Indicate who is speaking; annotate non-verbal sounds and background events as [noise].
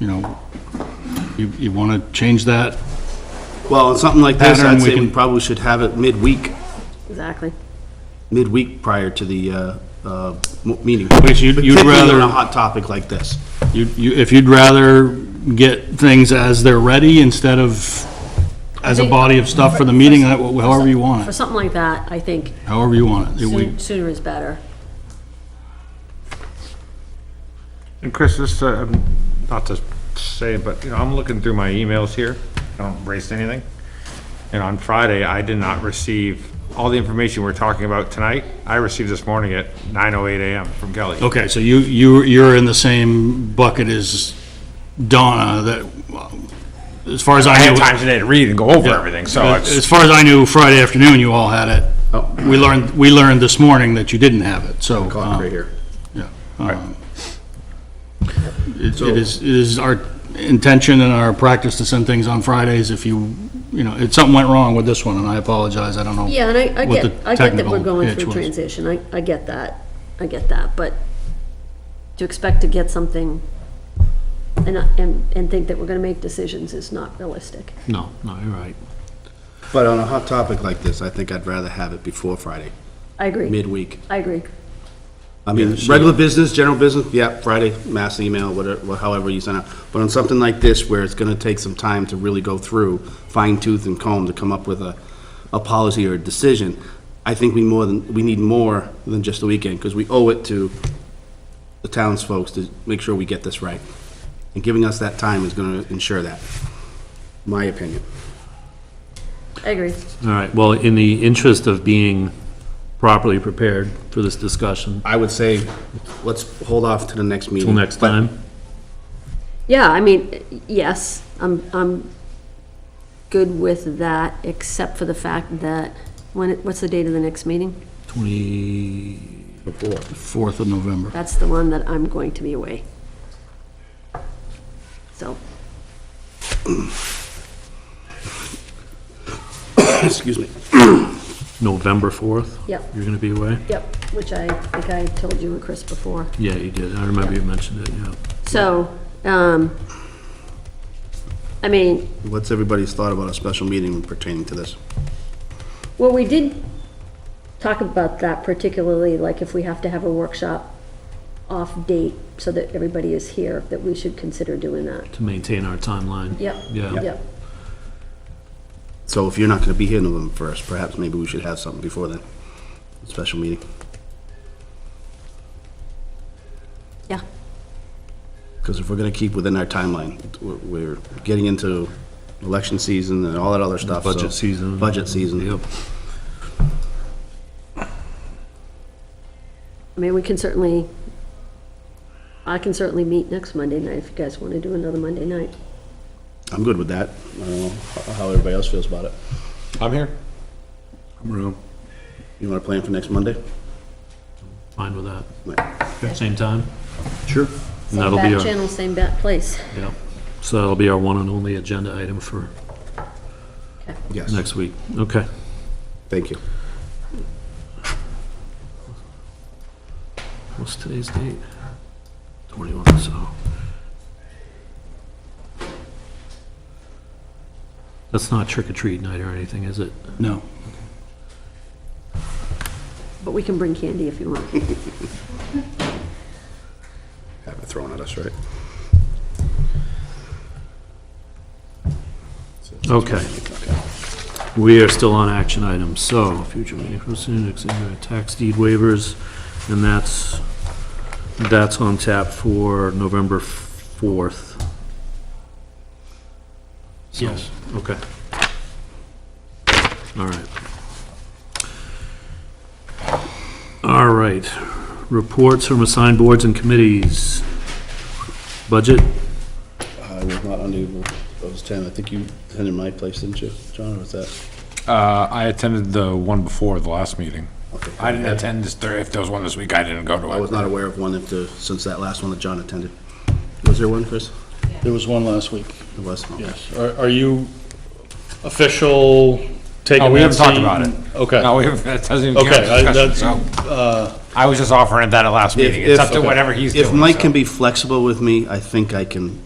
Speaker 1: you know, you, you want to change that?
Speaker 2: Well, something like this,
Speaker 1: Pattern,
Speaker 2: I'd
Speaker 1: we
Speaker 2: say we
Speaker 1: can-
Speaker 2: probably should have it midweek,
Speaker 3: Exactly.
Speaker 2: midweek prior to the uh, uh, m- meeting.
Speaker 1: Which you'd- you'd
Speaker 2: Particularly on
Speaker 1: rather-
Speaker 2: a hot topic like this.
Speaker 1: You, you, if you'd rather get things as they're ready instead of as a
Speaker 3: think-
Speaker 1: body of stuff for the meeting, that- however you want
Speaker 3: For
Speaker 1: it,
Speaker 3: something like that, I think
Speaker 1: however you want it. It- we-
Speaker 3: soon- sooner is better.
Speaker 4: And Chris, this, uh, um, not to say, but, you know, I'm looking through my emails here, I don't erase anything. And on Friday, I did not receive all the information we're talking about tonight. I received this morning at 9:08 AM from Kelly.
Speaker 1: Okay, so you, you, you're in the same bucket as Donna that, well, as far as I
Speaker 4: I
Speaker 1: knew.
Speaker 4: had time today to read and go over
Speaker 1: Yeah.
Speaker 4: everything, so it's-
Speaker 1: As far as I knew, Friday afternoon, you all had it. We learned, we learned this morning that you didn't have it, so.
Speaker 2: Clock right
Speaker 1: um,
Speaker 2: here.
Speaker 1: Yeah. um, It it is, it is our intention and our practice to send things on Fridays if you, you know, if something went wrong with this one, and I apologize, I don't know.
Speaker 3: Yeah, and I, I
Speaker 1: what
Speaker 3: get,
Speaker 1: the
Speaker 3: I get that we're
Speaker 1: technical
Speaker 3: going
Speaker 1: pitch
Speaker 3: through
Speaker 1: was.
Speaker 3: transition, I, I get that, I get that, but to expect to get something and, and, and think that we're gonna make decisions is not realistic.
Speaker 2: No, no, you're right. But on a hot topic like this, I think I'd rather have it before Friday,
Speaker 3: I agree,
Speaker 2: midweek.
Speaker 3: I agree.
Speaker 2: I mean, regular business, general business, yeah, Friday, mass email, whatever, however you send out. But on something like this, where it's gonna take some time to really go through, fine tooth and comb to come up with a, a policy or a decision, I think we more than, we need more than just the weekend, because we owe it to the townsfolk to make sure we get this right. And giving us that time is gonna ensure that, my opinion.
Speaker 3: I agree.
Speaker 5: All right, well, in the interest of being properly prepared for this discussion,
Speaker 2: I would say, let's hold off to the next meeting.
Speaker 3: Mm-hmm.
Speaker 5: till next
Speaker 2: But
Speaker 5: time,
Speaker 3: Yeah, I mean, yes, I'm, I'm good with that, except for the fact that, when, it- what's the date of the next meeting?
Speaker 5: 20,
Speaker 1: 4th of November.
Speaker 3: That's the one that I'm going to be away. So,
Speaker 2: Excuse me.
Speaker 5: November 4th?
Speaker 3: Yep.
Speaker 5: You're going to be away?
Speaker 3: yep, which I think I told you and Chris before.
Speaker 5: Yeah, you did, I remember you mentioned it, yeah.
Speaker 3: So, um, I mean,
Speaker 2: What's everybody's thought about a special meeting pertaining to this?
Speaker 3: well, we did talk about that particularly, like if we have to have a workshop off date so that everybody is here, that we should consider doing that.
Speaker 5: To maintain our timeline.
Speaker 3: Yep.
Speaker 5: Yeah.
Speaker 3: Yep,
Speaker 2: So if you're not gonna be here November first, perhaps maybe we should have something before then, a special meeting,
Speaker 3: yeah,
Speaker 2: because if we're gonna keep within our timeline, we're, we're getting into election season and all that other stuff, so-
Speaker 5: Budget season.
Speaker 2: Budget season,
Speaker 5: Yep.
Speaker 3: I mean, we can certainly, I can certainly meet next Monday night if you guys want to do another Monday night.
Speaker 2: I'm good with that, I don't know how- how everybody else feels about it.
Speaker 4: I'm here.
Speaker 2: You wanna plan for next Monday?
Speaker 5: Fine with that.
Speaker 2: Wait.
Speaker 5: Same time?
Speaker 2: Sure.
Speaker 5: And that'll be our,
Speaker 3: channel, same bat place.
Speaker 5: yeah. So that'll be our one and only agenda item for
Speaker 2: Yes,
Speaker 5: next week. Okay.
Speaker 2: thank you.
Speaker 5: What's today's date? 21, so. That's not trick or treat night or anything, is it?
Speaker 1: No.
Speaker 3: But we can bring candy if you want.
Speaker 2: Have it thrown at us, right?
Speaker 5: Okay. We are still on action items, so future meeting proceeding, next area, tax deed waivers, and that's, that's on tap for November 4th. So,
Speaker 1: Yes.
Speaker 5: Okay. All right. All right. Reports from assigned boards and committees. Budget?
Speaker 2: I was not unable, I was ten, I think you attended my place, didn't you, John, or was that?
Speaker 4: Uh, I attended the one before, the last meeting. I didn't attend this, Thur- if there was one this week, I didn't go
Speaker 2: I was
Speaker 4: to it.
Speaker 2: not aware of one if the, since that last one that John attended. Was there one, Chris?
Speaker 6: There was one last week,
Speaker 2: There was? Okay.
Speaker 6: yes. Are are you official taking
Speaker 4: No, Oh, we
Speaker 6: that
Speaker 4: haven't talked
Speaker 6: seat?
Speaker 4: about it.
Speaker 6: Okay,
Speaker 4: No, we [laughs] haven't, that doesn't even
Speaker 6: okay.
Speaker 4: count as
Speaker 6: I-
Speaker 4: discussion,
Speaker 6: that's,
Speaker 4: so.
Speaker 6: uh,
Speaker 4: I was just offering that at last
Speaker 2: If-
Speaker 4: meeting.
Speaker 2: if-
Speaker 4: It's up to whatever he's doing.
Speaker 2: If Mike
Speaker 4: so.
Speaker 2: can be flexible with me, I think I can